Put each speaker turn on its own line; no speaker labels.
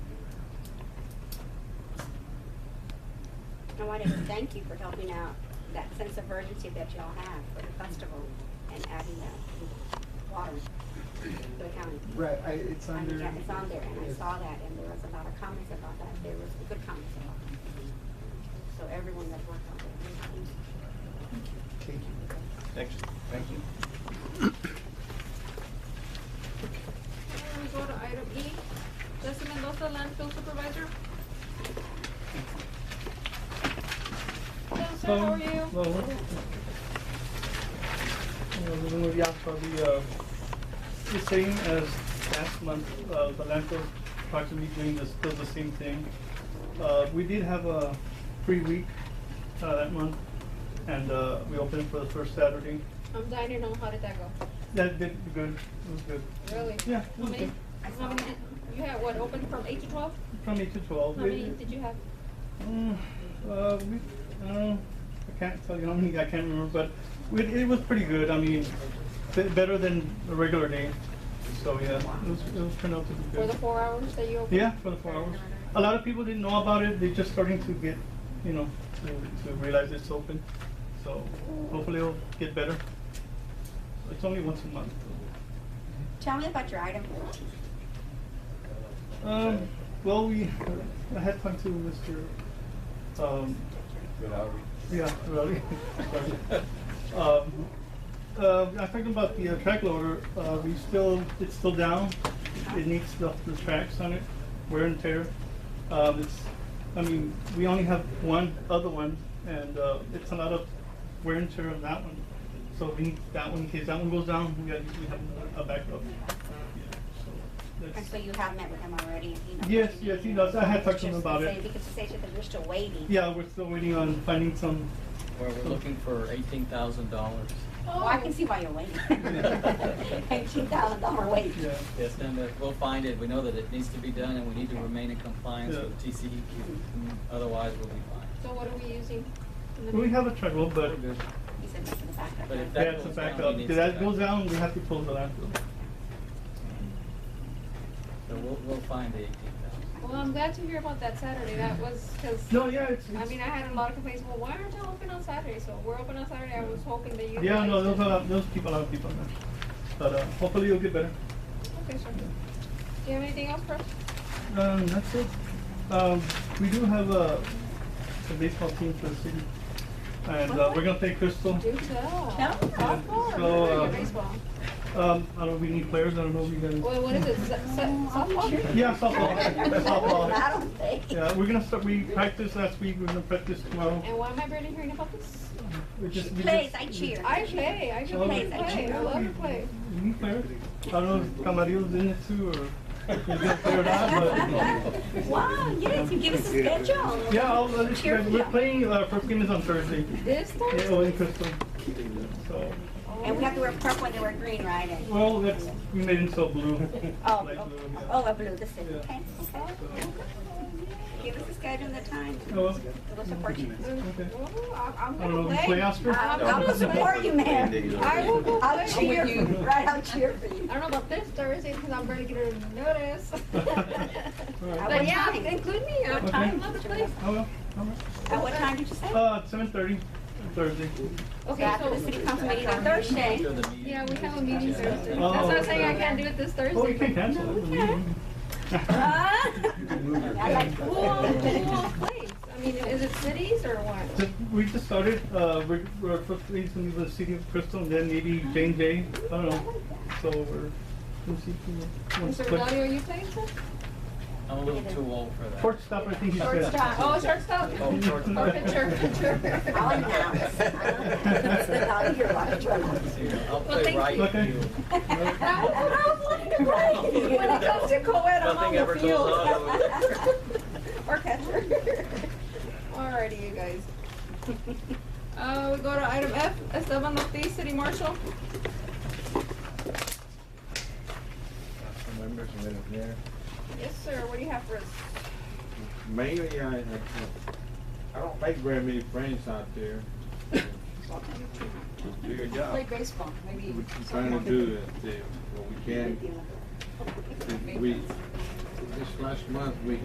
I wanted to thank you for helping out that sense of urgency that y'all have for the festival and adding the water to the county.
Right, I, it's
I mean,
under.
yeah, it's on there, and I
it's-
saw that, and there was a lot of comments about that, there was good comments about it. So everyone that worked on it.
Thank you.
Thanks. Thank you.
And we go to item E, Jesse Mendoza, landfill supervisor. Hello, sir, how are you?
Hello. Hello. Uh, The Lumia for the, uh, the same as last month, uh, the landfill approximately doing the, still the same thing. Uh, we did have a free week, uh, that month, and, uh, we opened for the first Saturday.
I'm dying to know, how did that go?
That did good, it was good.
Really?
Yeah, it
How
was
many,
good.
how many, did- you had what, open from eight to twelve?
From eight to twelve.
How
We-
many did you have?
Mm, Uh, we, I don't know, I can't tell you how many, I can't remember, but it, it was pretty good, I mean, be- better than a regular day. So, yeah, it was, it was turned out to be good.
For the four hours that you opened?
Yeah, for the four hours. A lot of people didn't know about it, they're just starting to get, you know, to, to realize it's open. So hopefully it'll get better. It's only once a month.
Tell me about your item fourteen.
Um, well, we, I had talked to Mr., um,
Good hour.
Yeah, really. Um, uh, I'm talking about the uh, track loader, uh, we still, it's still down, it needs the, the tracks on it, wear and tear. Um, it's, I mean, we only have one other one, and, uh, it's a lot of wear and tear on that one. So we need that one, in case that one goes down, we gotta, we have a backup. Yeah, so
And so
that's-
you have met with him already, and he knows.
Yes, yes, he knows. I had talked to him
Just
about
say-
it.
Because he said that we're still waiting.
Yeah, we're still waiting on finding some,
Where we're looking for eighteen thousand dollars.
Oh,
Well, Oh, I can see why you're waiting. Eighteen thousand dollar wait.
yeah.
Yes, then that we'll find it. We know that it needs to be done and we need to remain in compliance
Yeah.
with TCEQ. Otherwise, we'll be fine.
So what are we using? in the-
We have a track loader,
We're
but
good.
He said that's in the backup.
But if
Yeah,
that
it's a
goes
backup.
down, he
If
needs
that
to
goes
back up.
down, we have to pull the landfill.
So we'll, we'll find the eighteen thousand.
Well, um, I'm glad to hear about that Saturday, that was, cause.
No, yeah, it's,
I mean, I
it's,
had a lot of complaints, well, why aren't y'all open on Saturday? So we're open on Saturday, I was hoping that you.
yeah, no,
guys-
those are, those people are people now. But, uh, hopefully it'll get better.
Okay, sure. Do you have anything else for us?
Um, that's it. Um, we do have a, a baseball team for the city. And, uh, we're gonna play Crystal.
Do tell.
Tell us.
Of course.
So,
Your
uh,
baseball.
Um, I don't, we need players, I don't know if you guys.
Well, what is it? So- so- Softball?
Yeah, softball,
I
softball.
don't think.
Yeah, we're gonna start, we practiced last week, we're gonna practice tomorrow.
And why am I barely hearing about this?
We just- we
Plays,
just-
I
we-
cheer.
I play. I should
Oh,
play.
Plays, I
play.
cheer.
I love to play.
we need players. I don't know if Camarillo's in it too, or if he's gonna play or not, but.
Wow, yes, you give us a schedule.
Yeah, I'll, uh, I'll just,
Cheerful.
we're playing, uh, first game is on Thursday.
This Uh,
Yeah,
Thursday?
oh, in Crystal. So,
And we have to wear purple and they wear green, right? And-
well, that's, we made it so blue.
Oh,
Light
oh,
blue,
oh, a blue, the city,
Yeah.
okay, okay. Give us a schedule and the time.
yeah. Oh, well,
We'll support you.
okay.
Ooh, I- I'm
I don't know,
gonna
you
play.
play Oscar?
I'm
No.
gonna support you, man.
I will go
I'll
play
cheer
with
for you,
you.
right, I'll cheer for you.
I don't know about this Thursday because I'm barely getting notice.
Alright.
But yeah, include me. I'm
Okay.
I'm not to play.
Oh, well, all
At what time did you
right.
say?
Uh, seven thirty, Thursday.
Okay,
After the
so,
city council meeting on Thursday.
After the meeting.
yeah, we have a meeting Thursday. That's
Oh,
why I'm saying I
okay.
can't do it this Thursday. Uh,
Oh, you can cancel it.
Huh? I like,
Who all, who
cool.
all plays? I mean, is it cities or what?
Just- We just started, uh, we're, we're first going to the city of Crystal, and then maybe J and J, I don't know. So we're, we'll see. if we want to
Mr.
play.
Rodelio, are you playing too?
I'm a little too old for that.
Shortstop, I think he said.
Shortstop. Oh, shortstop.
Oh, shortstop.
Oh, pitcher, pitcher.
I'll announce. I'll sit down here like a drummer.
See, I'll
Well, thank
play right
you.
field.
When it comes to co-ed, I'm on
Nothing
the
ever
field.
goes on over there.
Or catcher.
Alrighty, you guys. Uh, we go to item F, Esteban Ortiz, City Marshal.
Council members, Madam Mayor.
Yes, sir, what do you have for us?
Mainly, I, I I don't make very many friends out there. Do your job.
Play baseball, maybe.
We're trying to do is, uh, what we can. We, this last month, we